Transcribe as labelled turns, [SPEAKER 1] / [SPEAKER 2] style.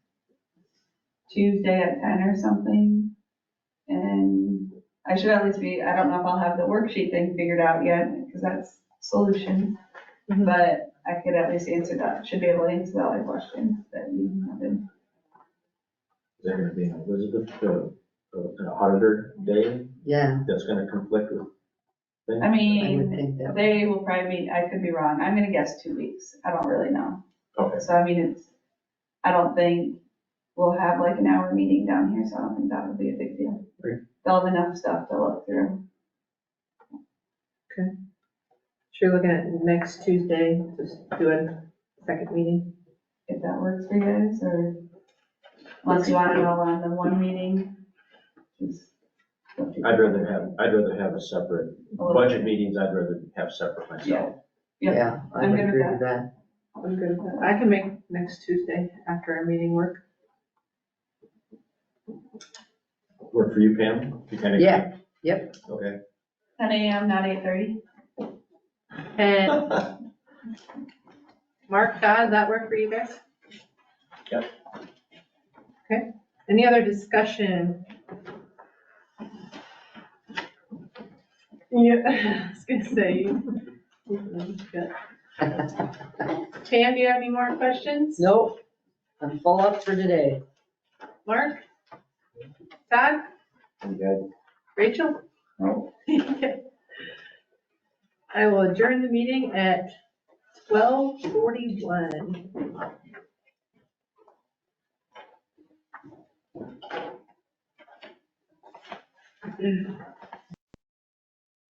[SPEAKER 1] Tuesday at ten or something. And I should at least be, I don't know if I'll have the worksheet thing figured out yet, because that's solution.
[SPEAKER 2] Mhm.
[SPEAKER 1] But I could at least answer that, should be able to answer that other question that you have.
[SPEAKER 3] Is that gonna be an Elizabeth, uh, uh, an auditor day
[SPEAKER 2] Yeah,
[SPEAKER 3] that's gonna conflict with? things?
[SPEAKER 1] I
[SPEAKER 2] I would
[SPEAKER 1] mean,
[SPEAKER 2] think that.
[SPEAKER 1] they will probably meet, I could be wrong, I'm gonna guess two weeks, I don't really know.
[SPEAKER 3] Okay,
[SPEAKER 1] So I mean, it's, I don't think we'll have like an hour meeting down here, so I don't think that would be a big deal.
[SPEAKER 3] Great.
[SPEAKER 1] They'll have enough stuff to look through.
[SPEAKER 2] Sure, looking at next Tuesday, just do a second meeting.
[SPEAKER 1] if that works for you guys, or unless you want it all on the one meeting. just up to you.
[SPEAKER 3] I'd rather have, I'd rather have a separate,
[SPEAKER 1] A little-
[SPEAKER 3] budget meetings, I'd rather have separate myself.
[SPEAKER 1] Yeah,
[SPEAKER 2] I
[SPEAKER 1] I'm
[SPEAKER 2] would
[SPEAKER 1] good with
[SPEAKER 2] agree with that. I'm good with that. I can make next Tuesday after our meeting work.
[SPEAKER 3] Work for you, Pam? You kinda-
[SPEAKER 2] Yeah, yep.
[SPEAKER 3] Okay.
[SPEAKER 1] Ten AM, not eight thirty.
[SPEAKER 2] And Mark, Todd, does that work for you guys?
[SPEAKER 3] Yep.
[SPEAKER 2] Okay, any other discussion? Yeah, I was gonna say. you- Tam, do you have any more questions?
[SPEAKER 4] Nope, I'm full up for today.
[SPEAKER 2] Mark? Todd?
[SPEAKER 3] You guys,
[SPEAKER 2] Rachel?
[SPEAKER 1] No.
[SPEAKER 2] I will adjourn the meeting at twelve forty-one.